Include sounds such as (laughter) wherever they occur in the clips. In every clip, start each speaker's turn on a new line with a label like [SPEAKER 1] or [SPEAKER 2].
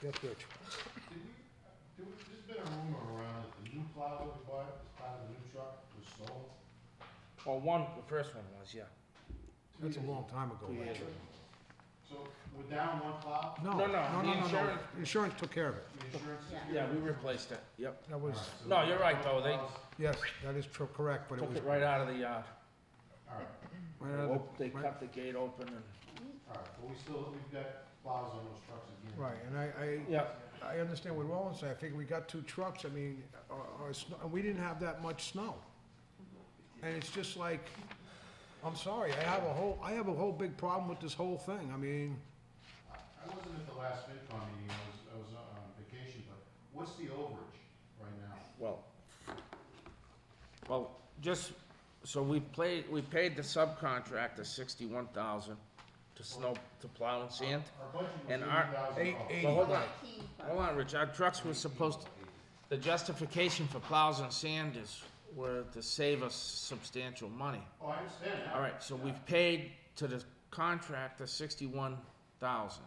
[SPEAKER 1] Jeff Rich.
[SPEAKER 2] Did we, there was, there's been a rumor around that the new plow that we bought as part of the new truck was stolen.
[SPEAKER 3] Well, one, the first one was, yeah.
[SPEAKER 1] That's a long time ago,
[SPEAKER 3] Yeah.
[SPEAKER 1] actually.
[SPEAKER 2] So we're down one plow,
[SPEAKER 1] No,
[SPEAKER 3] No,
[SPEAKER 1] no,
[SPEAKER 3] no,
[SPEAKER 1] no,
[SPEAKER 3] the
[SPEAKER 1] no, no.
[SPEAKER 3] insurance-
[SPEAKER 1] Insurance took care of it.
[SPEAKER 2] the insurance is good.
[SPEAKER 3] Yeah, we replaced it, yep.
[SPEAKER 1] That was,
[SPEAKER 3] No, you're right, though, they
[SPEAKER 1] yes, that is true, correct, but it
[SPEAKER 3] took
[SPEAKER 1] was.
[SPEAKER 3] it right out of the yard.
[SPEAKER 2] Alright,
[SPEAKER 1] right out of the-
[SPEAKER 3] Op- They
[SPEAKER 1] right-
[SPEAKER 3] cut the gate open and,
[SPEAKER 2] alright, but we still, we've got plows on those trucks again.
[SPEAKER 1] Right, and I,
[SPEAKER 3] yeah,
[SPEAKER 1] I, I understand what Roland's saying. I figure we got two trucks, I mean, or, or, sn- and we didn't have that much snow. And it's just like, I'm sorry, I have a whole, I have a whole big problem with this whole thing. I mean,
[SPEAKER 2] I I wasn't at the last FinCon meeting, I was, I was uh, on vacation, but what's the overage right now?
[SPEAKER 3] well. Well, just, so we played, we paid the subcontractor sixty-one thousand to snow, to plow and sand.
[SPEAKER 2] Our budget was
[SPEAKER 3] And
[SPEAKER 2] eighty
[SPEAKER 3] our-
[SPEAKER 2] thousand
[SPEAKER 1] eight,
[SPEAKER 2] dollars.
[SPEAKER 1] eighty.
[SPEAKER 3] Well, hold on,
[SPEAKER 4] Nineteen, but-
[SPEAKER 3] hold on, Rich, our trucks were supposed, to- the justification for plows and sand is, were to save us substantial money.
[SPEAKER 2] Oh, I understand that.
[SPEAKER 3] All right, so we've paid to the contractor sixty-one thousand.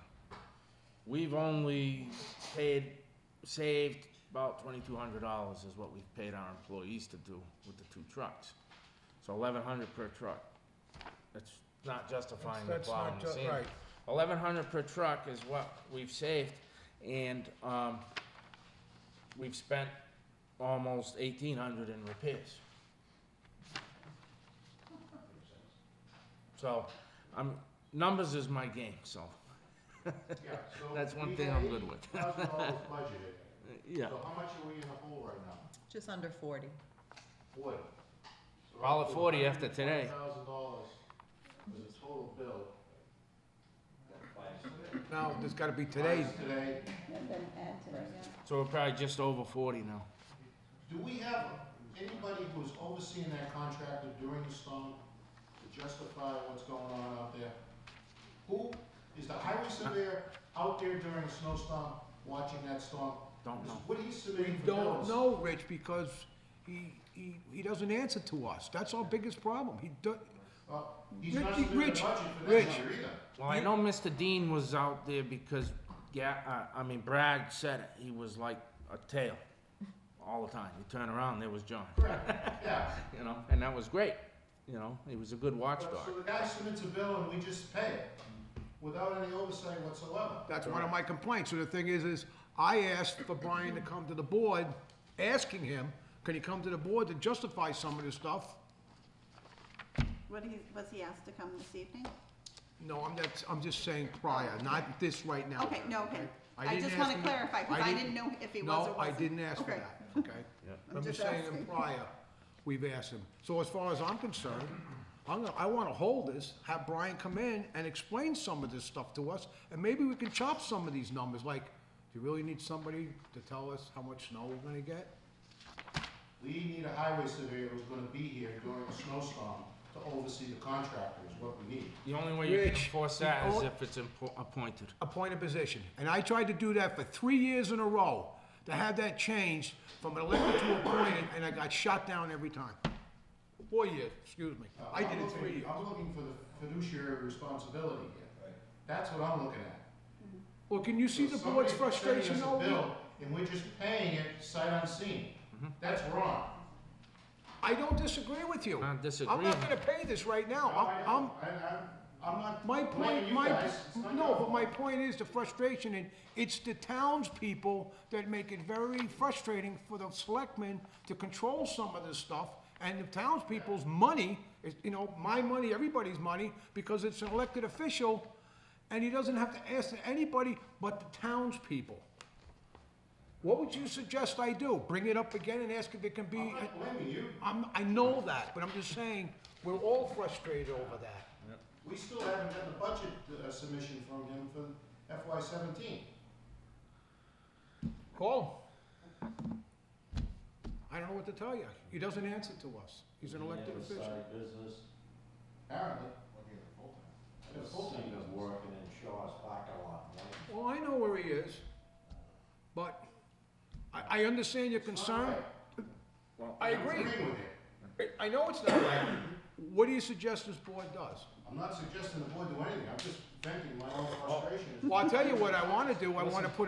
[SPEAKER 3] We've only paid, saved about twenty-two hundred dollars is what we've paid our employees to do with the two trucks. So eleven hundred per truck. That's not justifying the
[SPEAKER 1] That's- that's
[SPEAKER 3] plow
[SPEAKER 1] not
[SPEAKER 3] and the
[SPEAKER 1] ju-
[SPEAKER 3] sand.
[SPEAKER 1] right.
[SPEAKER 3] Eleven hundred per truck is what we've saved, and, um, we've spent almost eighteen hundred in repairs. So, I'm, numbers is my game, so,
[SPEAKER 2] Yeah, so
[SPEAKER 3] That's one
[SPEAKER 2] we
[SPEAKER 3] thing
[SPEAKER 2] had
[SPEAKER 3] I'm good with.
[SPEAKER 2] $80,000
[SPEAKER 3] (laughs)
[SPEAKER 2] budgeted.
[SPEAKER 3] yeah.
[SPEAKER 2] So how much are we in the hole right now?
[SPEAKER 5] Just under forty.
[SPEAKER 2] Forty. So
[SPEAKER 3] All at
[SPEAKER 2] roughly
[SPEAKER 3] 40 after today.
[SPEAKER 2] $120,000 was the total bill.
[SPEAKER 1] now, there's gotta be today.
[SPEAKER 2] Minus Today,
[SPEAKER 4] and then add to it, yeah.
[SPEAKER 3] So we're probably just over forty now.
[SPEAKER 2] do we have anybody who's overseeing that contractor during the storm to justify what's going on out there? Who, is the highway surveyor out there during a snowstorm, watching that storm?
[SPEAKER 3] Don't know.
[SPEAKER 2] What are you submitting for
[SPEAKER 1] Don't
[SPEAKER 2] bills?
[SPEAKER 1] know, Rich, because he, he, he doesn't answer to us. That's our biggest problem. He do,
[SPEAKER 2] Well, Uh, he's not
[SPEAKER 1] Ricky,
[SPEAKER 2] submitting a budget
[SPEAKER 1] Rich,
[SPEAKER 2] for
[SPEAKER 1] Rich.
[SPEAKER 2] that number either.
[SPEAKER 3] (laughs) Well, I know Mr. Dean was out there because, yeah, uh, I mean, Brad said it, he was like a tail all the time. You turn around, there was John,
[SPEAKER 2] Correct, yeah.
[SPEAKER 3] you know, and that was great, you know, he was a good
[SPEAKER 2] So
[SPEAKER 3] watchdog.
[SPEAKER 2] the guy submits a bill and we just pay it, without any oversight whatsoever.
[SPEAKER 1] that's one of my complaints. So the thing is, is I asked for Brian to come to the board, asking him, can he come to the board to justify some of this stuff?
[SPEAKER 4] What he, was he asked to come this evening?
[SPEAKER 1] No, I'm just, I'm just saying prior, not this right now.
[SPEAKER 4] Okay, no, okay.
[SPEAKER 1] I
[SPEAKER 4] I
[SPEAKER 1] didn't
[SPEAKER 4] just
[SPEAKER 1] ask
[SPEAKER 4] wanna
[SPEAKER 1] him-
[SPEAKER 4] clarify, cause I didn't know if he was or wasn't.
[SPEAKER 1] No, I didn't ask for
[SPEAKER 4] Okay.
[SPEAKER 1] that, okay? I'm just
[SPEAKER 4] just
[SPEAKER 1] saying
[SPEAKER 4] asking.
[SPEAKER 1] prior, we've asked him. So as far as I'm concerned, I'm gonna, I wanna hold this, have Brian come in and explain some of this stuff to us, and maybe we can chop some of these numbers, like, do you really need somebody to tell us how much snow we're gonna get?
[SPEAKER 2] We need a highway surveyor who's gonna be here during a snowstorm to oversee the contractor is what we need.
[SPEAKER 3] The only way you can
[SPEAKER 1] Rich,
[SPEAKER 3] enforce that
[SPEAKER 1] the
[SPEAKER 3] is
[SPEAKER 1] o-
[SPEAKER 3] if it's impo- appointed.
[SPEAKER 1] appoint a position. And I tried to do that for three years in a row, to have that changed from an elected to appointed, and I got shot down every time. Four years, excuse me.
[SPEAKER 2] Uh,
[SPEAKER 1] I
[SPEAKER 2] I'm
[SPEAKER 1] did it
[SPEAKER 2] looking-
[SPEAKER 1] three years.
[SPEAKER 2] I'm looking for the fiduciary responsibility here. That's what I'm looking at.
[SPEAKER 1] Well, can you see
[SPEAKER 2] So
[SPEAKER 1] the board's
[SPEAKER 2] somebody's sending
[SPEAKER 1] frustration
[SPEAKER 2] us a
[SPEAKER 1] though?
[SPEAKER 2] bill And we're just paying it sight unseen.
[SPEAKER 1] Mm-hmm.
[SPEAKER 2] That's wrong.
[SPEAKER 1] I don't disagree with you.
[SPEAKER 3] Not
[SPEAKER 1] I'm
[SPEAKER 3] disagreeing.
[SPEAKER 1] not gonna pay this right now.
[SPEAKER 2] I
[SPEAKER 1] I'm,
[SPEAKER 2] know.
[SPEAKER 1] I'm,
[SPEAKER 2] I- I'm, I'm not
[SPEAKER 1] my
[SPEAKER 2] blaming
[SPEAKER 1] point,
[SPEAKER 2] you
[SPEAKER 1] my,
[SPEAKER 2] guys. It's not
[SPEAKER 1] no,
[SPEAKER 2] your
[SPEAKER 1] but my
[SPEAKER 2] fault.
[SPEAKER 1] point is the frustration, and it's the townspeople that make it very frustrating for the selectmen to control some of this stuff, and the townspeople's money, is, you know, my money, everybody's money, because it's an elected official, and he doesn't have to ask anybody but the townspeople. What would you suggest I do? Bring it up again and ask if it can be?
[SPEAKER 2] I'm not blaming you.
[SPEAKER 1] I'm, I know that, but I'm just saying, we're all frustrated over that.
[SPEAKER 2] We still haven't got the budget uh, submission from him for FY seventeen.
[SPEAKER 1] Call him. I don't know what to tell you. He doesn't answer to us. He's an elected official.
[SPEAKER 6] business,
[SPEAKER 2] Apparently,
[SPEAKER 6] I just seen him working in Shaw's parking lot, man.
[SPEAKER 1] Well, Oh, I know where he is, but I, I understand your concern. I
[SPEAKER 2] I'm
[SPEAKER 1] agree.
[SPEAKER 2] agreeing with it.
[SPEAKER 1] I- I know it's not right. What do you suggest this board does?
[SPEAKER 2] I'm not suggesting the board do anything, I'm just venting my own frustration.
[SPEAKER 1] Well, I'll tell you what I wanna do. I wanna put a